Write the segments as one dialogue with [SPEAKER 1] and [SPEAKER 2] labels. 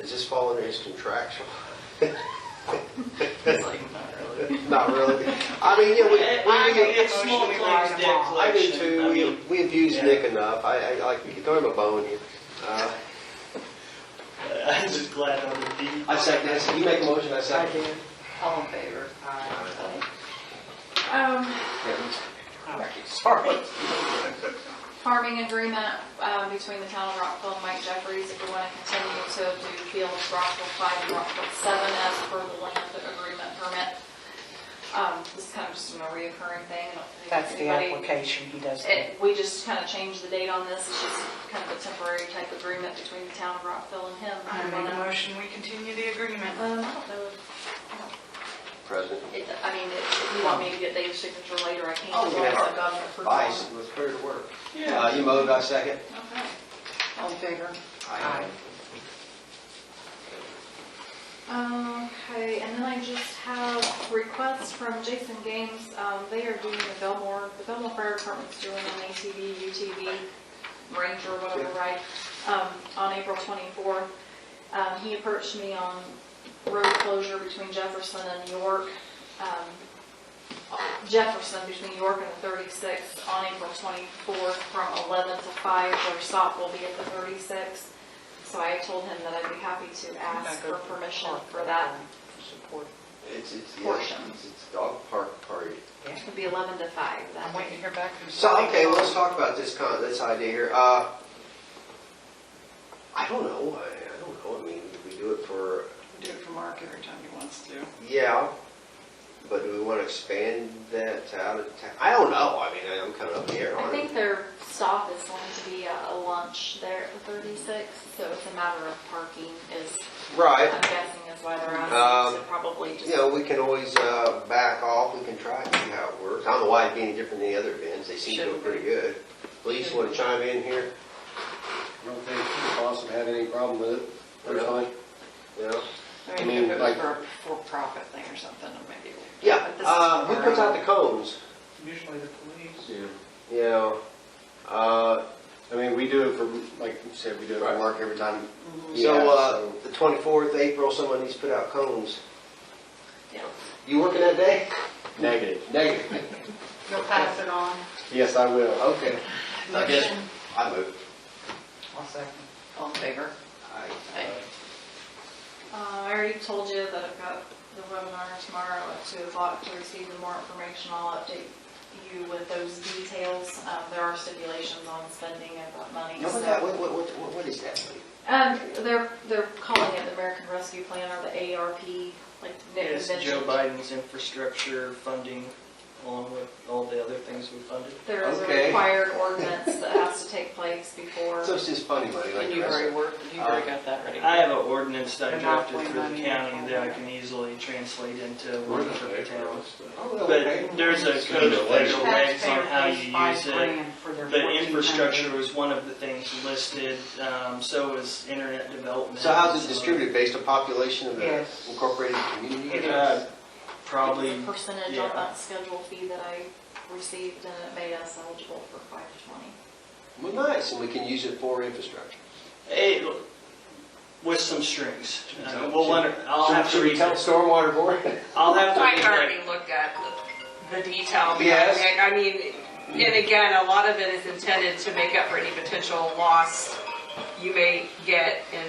[SPEAKER 1] Does this fall under his contractual?
[SPEAKER 2] It's like, not really.
[SPEAKER 1] Not really. I mean, yeah, we,
[SPEAKER 2] I
[SPEAKER 1] we,
[SPEAKER 2] mean,
[SPEAKER 1] we-
[SPEAKER 2] it's small
[SPEAKER 3] Motion, we write
[SPEAKER 2] claims
[SPEAKER 3] them
[SPEAKER 2] debt
[SPEAKER 3] all.
[SPEAKER 1] I do
[SPEAKER 2] collection.
[SPEAKER 1] too. We,
[SPEAKER 2] mean,
[SPEAKER 1] we abuse
[SPEAKER 2] yeah.
[SPEAKER 1] Nick enough. I, I like, you throw him a bone here. Uh,
[SPEAKER 2] I'm just glad I'm the deed.
[SPEAKER 1] I second, I said, you make a motion, I
[SPEAKER 3] I
[SPEAKER 1] second.
[SPEAKER 3] do.
[SPEAKER 2] All in favor?
[SPEAKER 3] Aye. Um,
[SPEAKER 2] Sorry.
[SPEAKER 4] farming agreement um, between the town of Rockville and Mike Jeffries, if we want to continue to do fields Rockville five and Rockville seven as per the land agreement permit. Um, This is kind of just a reoccurring thing. I don't think
[SPEAKER 3] that's the
[SPEAKER 4] anybody-
[SPEAKER 3] application he does.
[SPEAKER 4] It- We just kind of changed the date on this, it's just kind of a temporary type agreement between the town of Rockville and him.
[SPEAKER 3] I make a motion, we continue the agreement.
[SPEAKER 4] Um, I don't know if-
[SPEAKER 1] President.
[SPEAKER 4] it- I mean, if if you want me to get Dave's signature later, I can.
[SPEAKER 1] Oh, yeah.
[SPEAKER 4] as long as I've gotten approval.
[SPEAKER 1] Vice, let's put her to work. Uh, you moved, I second.
[SPEAKER 4] Okay.
[SPEAKER 3] All in favor? Aye.
[SPEAKER 4] Um, Okay, and then I just have requests from Jason Games. Um, They are doing the Belmore, the Belmore Fire Department's doing an ATV, UTV, Ranger, whatever, right, um, on April 24th. Um, He approached me on road closure between Jefferson and York, um, Jefferson between York and the 36th on April 24th from 11 to 5. Their stop will be at the 36th. So I told him that I'd be happy to ask for permission for that.
[SPEAKER 3] Support.
[SPEAKER 1] It's, it's, yeah,
[SPEAKER 4] Portion.
[SPEAKER 1] it's it's dog park party.
[SPEAKER 4] It would be 11 to 5
[SPEAKER 3] I'm
[SPEAKER 4] that
[SPEAKER 3] waiting to
[SPEAKER 4] way.
[SPEAKER 3] hear back from.
[SPEAKER 1] So, okay, well, let's talk about this con, this idea here. Uh, I don't know, I, I don't know, I mean, we do it for,
[SPEAKER 3] Do it for Mark every time he wants to.
[SPEAKER 1] yeah, but do we want to expand that to out of town? I don't know, I mean, I'm kind of up in the air
[SPEAKER 4] I
[SPEAKER 1] on
[SPEAKER 4] think
[SPEAKER 1] it.
[SPEAKER 4] their stop is going to be a a lunch there at the 36th, so it's a matter of parking is,
[SPEAKER 1] Right,
[SPEAKER 4] I'm guessing is why they're
[SPEAKER 1] Um,
[SPEAKER 4] asking, so probably just.
[SPEAKER 1] you know, we can always, uh, back off, we can try and see how it works. I don't know why it'd be any different than the other events, they seem to go
[SPEAKER 3] Shouldn't be.
[SPEAKER 1] pretty good. Police want to chime in here,
[SPEAKER 5] I don't think the boss would have any problem with it, personally.
[SPEAKER 1] you know?
[SPEAKER 3] I
[SPEAKER 5] mean,
[SPEAKER 3] mean,
[SPEAKER 5] like-
[SPEAKER 3] for a for-profit thing or something, or maybe.
[SPEAKER 1] Yeah,
[SPEAKER 3] But this is
[SPEAKER 1] uh, who
[SPEAKER 3] for-
[SPEAKER 1] puts out the cones?
[SPEAKER 3] Usually the police.
[SPEAKER 1] You know, uh,
[SPEAKER 5] I mean, we do it for, like you said, we do it
[SPEAKER 1] Right.
[SPEAKER 5] for Mark every time.
[SPEAKER 1] So,
[SPEAKER 5] Yeah,
[SPEAKER 1] uh,
[SPEAKER 5] so-
[SPEAKER 1] the 24th April, someone needs to put out cones.
[SPEAKER 4] Yeah.
[SPEAKER 1] You working that day?
[SPEAKER 5] Negative.
[SPEAKER 1] Negative.
[SPEAKER 3] You'll pass it on.
[SPEAKER 5] Yes, I will.
[SPEAKER 1] Okay. I guess-
[SPEAKER 3] Motion.
[SPEAKER 1] I move.
[SPEAKER 3] I'll second. All in favor?
[SPEAKER 1] Aye.
[SPEAKER 4] Uh, I already told you that I've got the webinar tomorrow at two o'clock to receive the more information. I'll update you with those details. Um, there are stipulations on spending of that money.
[SPEAKER 1] Now, what, that- what, what, what- what is that?
[SPEAKER 4] Um, they're, they're calling it the American Rescue Plan or the ARP, like Nick
[SPEAKER 2] It's Joe
[SPEAKER 4] mentioned.
[SPEAKER 2] Biden's infrastructure funding along with all the other things we funded.
[SPEAKER 4] There is a
[SPEAKER 1] Okay.
[SPEAKER 4] required ordinance that has to take place before.
[SPEAKER 1] So it's just funny money, like
[SPEAKER 3] And
[SPEAKER 1] the
[SPEAKER 3] you've
[SPEAKER 1] rest of
[SPEAKER 3] already worked, you've already
[SPEAKER 1] Uh,
[SPEAKER 3] got that ready.
[SPEAKER 2] I have an ordinance that I drafted
[SPEAKER 3] Monopoly
[SPEAKER 2] for the
[SPEAKER 3] money.
[SPEAKER 2] county that I can easily translate into one for the town.
[SPEAKER 1] Oh, well, okay.
[SPEAKER 2] But there's a code of federal regs on how you use it. The infrastructure was one of the things listed, um, so was internet development.
[SPEAKER 1] So how's it distributed, based on population of the
[SPEAKER 3] Yes.
[SPEAKER 1] incorporated community?
[SPEAKER 3] It
[SPEAKER 2] Uh,
[SPEAKER 3] is.
[SPEAKER 2] Probably,
[SPEAKER 4] Percentage
[SPEAKER 2] yeah.
[SPEAKER 4] on that schedule fee that I received and it made us eligible for five twenty.
[SPEAKER 1] Well, nice, and we can use it for infrastructure.
[SPEAKER 2] eh, with some strings. Uh, We'll, let her- I'll
[SPEAKER 1] Should-
[SPEAKER 2] have to
[SPEAKER 1] Should we
[SPEAKER 2] read,
[SPEAKER 1] tell Stormwater Board?
[SPEAKER 2] I'll have to
[SPEAKER 6] I
[SPEAKER 2] read that
[SPEAKER 6] already looked at the the detail. behind
[SPEAKER 1] Yes.
[SPEAKER 6] it. I mean, and again, a lot of it is intended to make up for any potential loss you may get in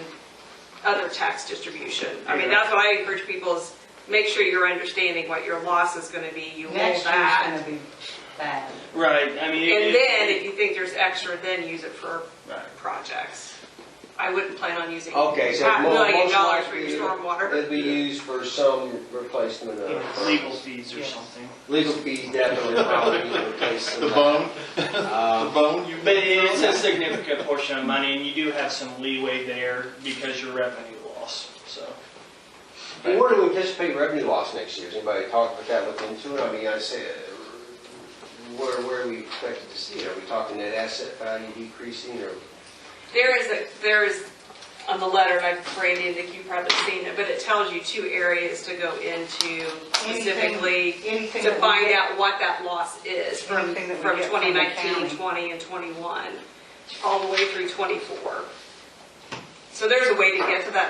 [SPEAKER 6] other tax distribution. I mean, that's what I encourage people is make sure you're understanding what your loss is gonna be, you hold
[SPEAKER 3] Next year's
[SPEAKER 6] that.
[SPEAKER 3] gonna be bad.
[SPEAKER 2] Right, I mean. it-
[SPEAKER 6] And
[SPEAKER 2] it-
[SPEAKER 6] then, if you think there's extra, then use it for
[SPEAKER 2] Right.
[SPEAKER 6] projects. I wouldn't plan on using
[SPEAKER 1] Okay, so
[SPEAKER 6] half
[SPEAKER 1] mo-
[SPEAKER 6] million
[SPEAKER 1] most
[SPEAKER 6] dollars for
[SPEAKER 1] likely
[SPEAKER 6] your stormwater.
[SPEAKER 1] That'd be used for some replacement
[SPEAKER 2] you know,
[SPEAKER 1] of. uh,
[SPEAKER 2] Legal fees or
[SPEAKER 3] Yes.
[SPEAKER 2] something.
[SPEAKER 1] Legal fees definitely probably need to replace some. Um,
[SPEAKER 7] The bone, the bone you.
[SPEAKER 2] But it's a significant portion of money, and you do have some leeway there because your revenue loss, so.
[SPEAKER 1] Well, Where do we anticipate revenue loss next year? Has anybody talked about that, looked into it? I mean, I say, uh, where, where are we expected to see it? Are we talking net asset value decreasing or?
[SPEAKER 6] There is, a there is, on the letter I've created, that you've probably seen it, but it tells you two areas to go into specifically
[SPEAKER 3] Anything
[SPEAKER 6] to
[SPEAKER 3] that we
[SPEAKER 6] find
[SPEAKER 3] get-
[SPEAKER 6] out what that loss is from,
[SPEAKER 3] Anything that we
[SPEAKER 6] from
[SPEAKER 3] get from the
[SPEAKER 6] 2019,
[SPEAKER 3] county.
[SPEAKER 6] 20, and 21, all the way through 24. So there's a way to get to that